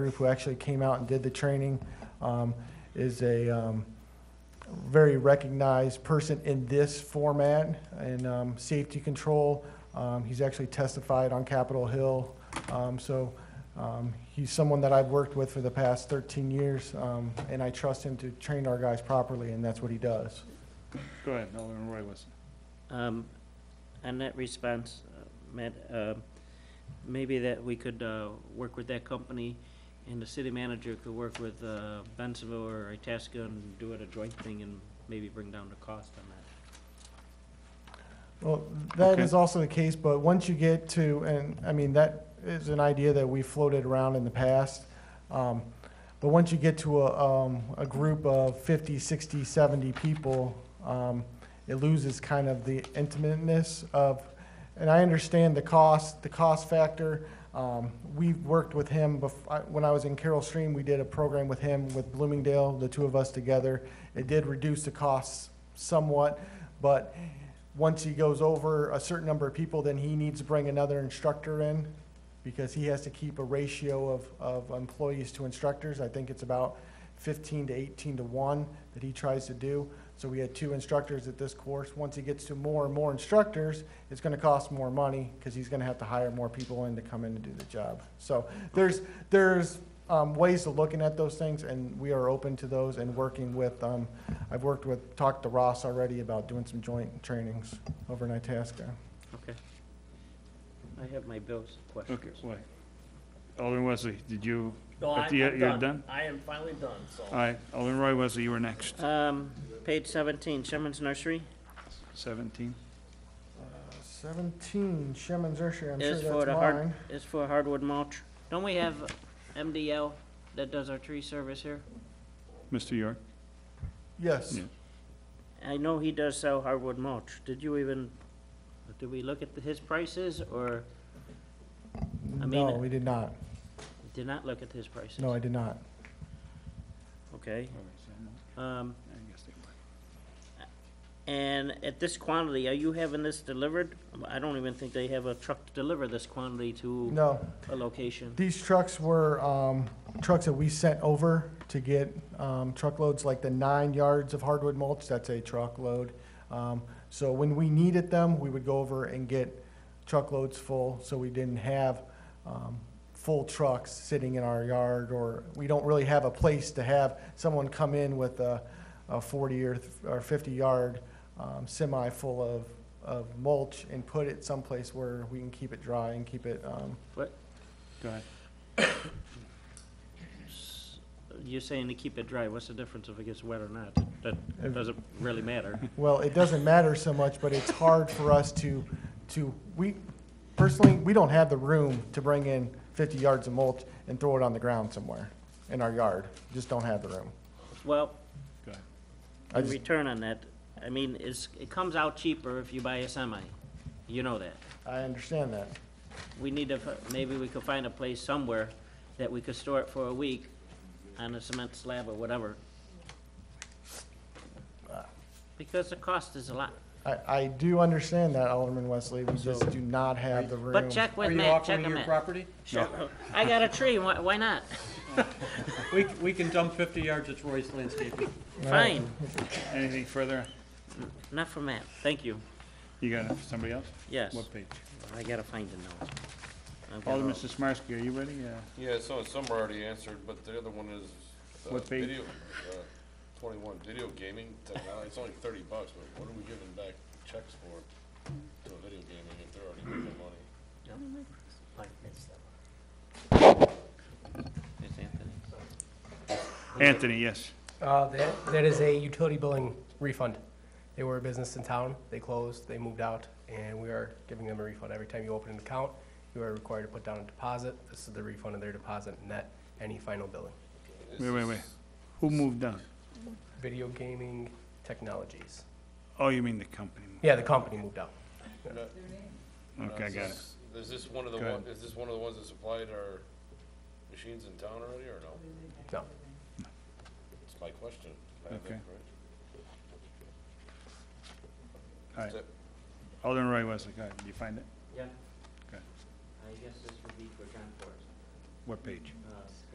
group who actually came out and did the training, um, is a, um, very recognized person in this format in, um, safety control. Um, he's actually testified on Capitol Hill, um, so, um, he's someone that I've worked with for the past thirteen years, um, and I trust him to train our guys properly, and that's what he does. Go ahead, Alderman Roy Wilson. Um, On that response, uh, Matt, uh, maybe that we could uh, work with that company, and the city manager could work with uh, Bensonville or Itasca and do it a joint thing and maybe bring down the cost on that. Well, that Okay. is also the case, but once you get to, and, I mean, that is an idea that we floated around in the past. Um, But once you get to a, um, a group of 50, 60, 70 people, um, it loses kind of the intimateness of, and I understand the cost, the cost factor. Um, we worked with him bef, I- when I was in Carroll Stream, we did a program with him with Bloomingdale, the two of us together. It did reduce the costs somewhat, but once he goes over a certain number of people, then he needs to bring another instructor in because he has to keep a ratio of, of employees to instructors. I think it's about fifteen to eighteen to one that he tries to do. So we had two instructors at this course. Once he gets to more and more instructors, it's gonna cost more money because he's gonna have to hire more people in to come in and do the job. So there's, there's, um, ways of looking at those things and we are open to those and working with, um, I've worked with, talked to Ross already about doing some joint trainings over in Itasca. Okay. I have my bills, Okay, questions. wait. Alderman Wesley, did you, No, I, At the- I'm you're done. done? I am finally done, so. all right, Alderman Roy Wesley, you were next. Um, Page 17, Sherman's Nursery. 17. Seventeen, Sheman's Nursery, I'm sure Is for that's the hard, mine. is for hardwood mulch. Don't we have MDL that does our tree service here? Mr. York? Yes, Yeah. I know he does sell hardwood mulch. Did you even, did we look at the- his prices or I mean- no, we did not. did not look at his prices? No, I did not. Okay, um, and at this quantity, are you having this delivered? I don't even think they have a truck to deliver this quantity to No, a location. these trucks were, um, trucks that we sent over to get, um, truckloads like the nine yards of hardwood mulch, that's a truckload. Um, so when we needed them, we would go over and get truckloads full, so we didn't have, um, full trucks sitting in our yard, or we don't really have a place to have someone come in with a, a forty or, th- or fifty yard, um, semi full of, of mulch and put it someplace where we can keep it dry and keep it, um, Go ahead. S- You're saying to keep it dry. What's the difference if it gets wet or not? That doesn't really matter. Well, it doesn't matter so much, but it's hard for us to, to, we, personally, we don't have the room to bring in fifty yards of mulch and throw it on the ground somewhere in our yard. Just don't have the room. Well, Go ahead. I in just- return on that, I mean, it's, it comes out cheaper if you buy a semi. You know that. I understand that. we need to, fi- maybe we could find a place somewhere that we could store it for a week on a cement slab or whatever. Because the cost is a lot. I, I do understand that, Alderman Wesley. We just So- do not have the room. But check Are with you Matt, check offering with your Matt. property? Sure. I got a tree, why, why not? We, we can dump fifty yards, it's Roy's landscaping. Fine, Anything further? not for Matt, thank you. You got it, somebody else? Yes, What page? I gotta find a note. I've got a- Alderman Sismarski, are you ready? Yeah. Yeah, so some are already answered, but the other one is. uh, What page? video, uh, Twenty-one, video gaming technology, it's only thirty bucks, but what are we giving back checks for to video gaming if they're already making money? I missed that. There's Anthony. Anthony, yes. Uh, that, that is a utility billing refund. They were a business in town, they closed, they moved out, and we are giving them a refund. Every time you open an account, you are required to put down a deposit. This is the refund of their deposit, net any final billing. Wait, wait, wait. Who moved down? Video gaming technologies. Oh, you mean the company? moved. Yeah, the company moved out. Okay, I got it. Is this one of the Go one, ahead. is this one of the ones that supplied our machines in town already, or no? No. It's my question. I think, Okay. right? All right. That's it. Alderman Roy Wesley, go ahead. Did you find it? Yeah. Okay. I guess this would be for John Forrest. What page? Uh,